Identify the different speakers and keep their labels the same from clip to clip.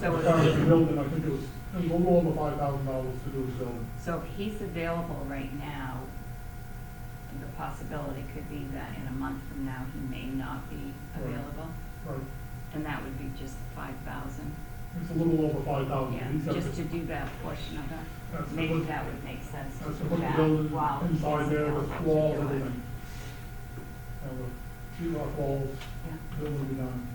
Speaker 1: So-
Speaker 2: Because the building, I think it was, it was a little over five thousand dollars to do a building.
Speaker 1: So if he's available right now, the possibility could be that in a month from now, he may not be
Speaker 2: Right.
Speaker 1: available,
Speaker 2: Right,
Speaker 1: and that would be just five thousand.
Speaker 2: it's a little over five thousand.
Speaker 1: Yeah, just to do that portion of
Speaker 2: That's
Speaker 1: it,
Speaker 2: the
Speaker 1: maybe
Speaker 2: one-
Speaker 1: that would make sense to
Speaker 2: That's to
Speaker 1: do
Speaker 2: put the
Speaker 1: that
Speaker 2: building
Speaker 1: while he's
Speaker 2: inside there
Speaker 1: available
Speaker 2: with
Speaker 1: to
Speaker 2: walls,
Speaker 1: do it.
Speaker 2: everything. And the sheet rock walls,
Speaker 1: Yeah.
Speaker 2: building will be done.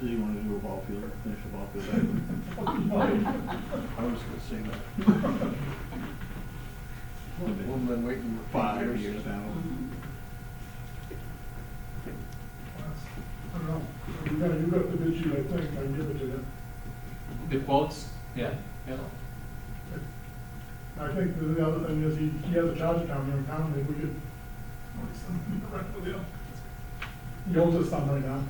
Speaker 3: Do you want to do a ball field, finish a ball field? I
Speaker 2: Fucking nice.
Speaker 3: was gonna say that. We've been waiting for five years now.
Speaker 1: Mhm.
Speaker 2: That's- I don't know, you got, you got the bid sheet, I think, I can give it to you.
Speaker 4: The quotes, yeah, yeah.
Speaker 2: I think the- the other thing is he, he has a charge account here in town, maybe we could. work something direct with him. He owns us some right now.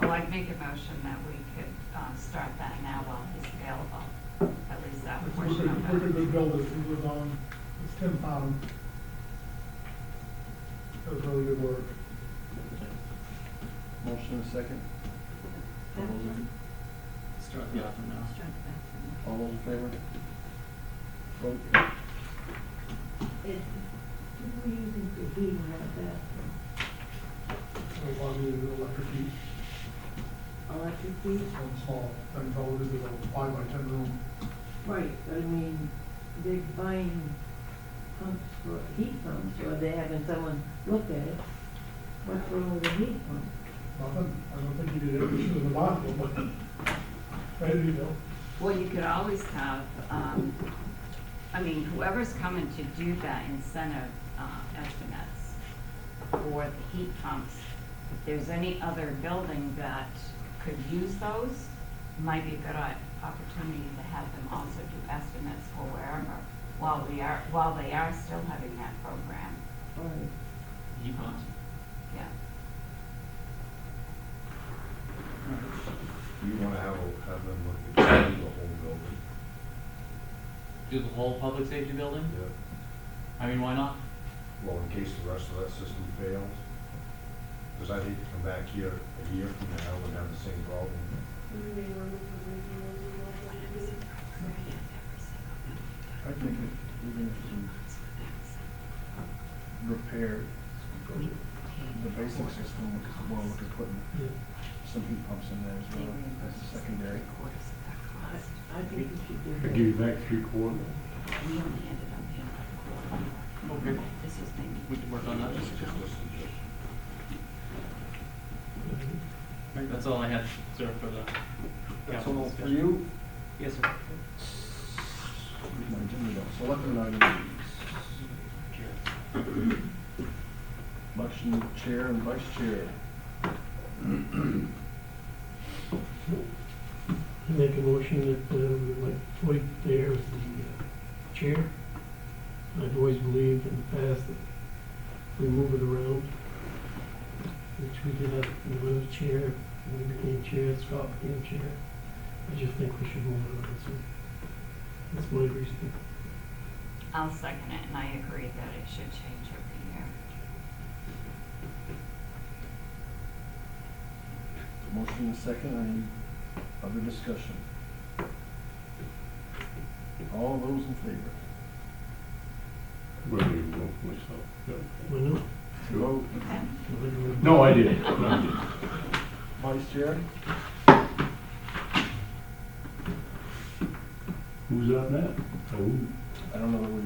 Speaker 1: Well, I'd make a motion that we could, um, start that now while he's available, at least that
Speaker 2: It's a
Speaker 1: portion
Speaker 2: wicked,
Speaker 1: of
Speaker 2: wicked
Speaker 1: it.
Speaker 2: good builder, he was on, it's Tim Pound. Does really good work.
Speaker 3: Motion and second. All those in-
Speaker 4: Start
Speaker 3: the
Speaker 4: off
Speaker 3: oven
Speaker 1: Strike that
Speaker 2: Oh,
Speaker 1: from there.
Speaker 3: All those in favor? Vote.
Speaker 5: It, we're using the heating like that,
Speaker 2: So probably the electric heat,
Speaker 5: electric heat.
Speaker 2: some small, things all it is is a five by ten room.
Speaker 5: Right, I mean, they're buying pumps for, heat pumps, or they're having someone look at it. What's wrong with a heat pump?
Speaker 2: Nothing, I don't think he did everything in the bathroom, but, right, you know.
Speaker 1: Well, you could always have, um, I mean, whoever's coming to do that incentive, uh, estimates for the heat pumps, if there's any other building that could use those, might be a good o- opportunity to have them also do estimates for wherever, while we are, while they are still having that program,
Speaker 5: Or,
Speaker 4: Heat pumps.
Speaker 1: yeah.
Speaker 6: You wanna have, a- have them look at the whole building,
Speaker 4: Do the whole public safety building?
Speaker 6: yeah,
Speaker 4: I mean, why not?
Speaker 6: well, in case the rest of that system fails. Cause I'd hate to come back here a year from now and have the same problem.
Speaker 3: I think if, even if you repair the basic system, because well, we could put some heat pumps in there as well, as a secondary.
Speaker 1: Quarters of that cost.
Speaker 5: I, I think we should do that.
Speaker 6: back three quarters.
Speaker 1: We only ended up paying like a quarter.
Speaker 4: Okay.
Speaker 1: This was maybe
Speaker 4: We could work on that. That's all I had, sir, for the.
Speaker 3: That's all for you?
Speaker 4: Yes, sir.
Speaker 3: Read my agenda, though. Selectmen items. Election of chair and vice chair.
Speaker 7: I Make a motion that uh, we elect Floyd Thayer as the uh, chair. I've always believed in the past that we move it around, which we did have, when I was chair, when I became chair, Scott became chair. I just think we should move it around, so that's my reason.
Speaker 1: I'll second it, and I agree that it should change every year.
Speaker 3: Motion and second, any other discussion? All those in favor?
Speaker 8: Whether you vote myself.
Speaker 7: Why not?
Speaker 3: Vote.
Speaker 8: No, I didn't. No, I didn't.
Speaker 3: Vice chair?
Speaker 8: Who's up now? Oh,
Speaker 3: I don't know that we,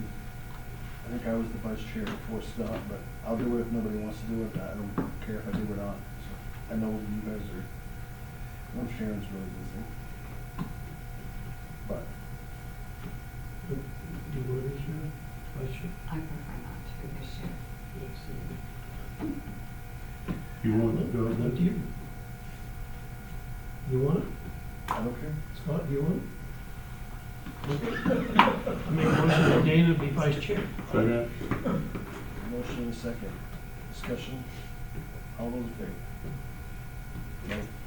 Speaker 3: I think I was the vice chair before Scott, but I'll do it if nobody wants to do it. I don't care if I do it on. I know you guys are, I know Sharon's really busy. But
Speaker 7: Do you want to share? I should.
Speaker 1: I prefer not to this year.
Speaker 7: Yes, uh,
Speaker 8: you want to go
Speaker 7: Up
Speaker 8: ahead?
Speaker 7: to you. You want it?
Speaker 3: I don't care.
Speaker 7: Scott, do you want it? I make a motion that Dana be vice chair.
Speaker 8: Second?
Speaker 3: Motion and a second. Discussion. All those in favor? No. Mm,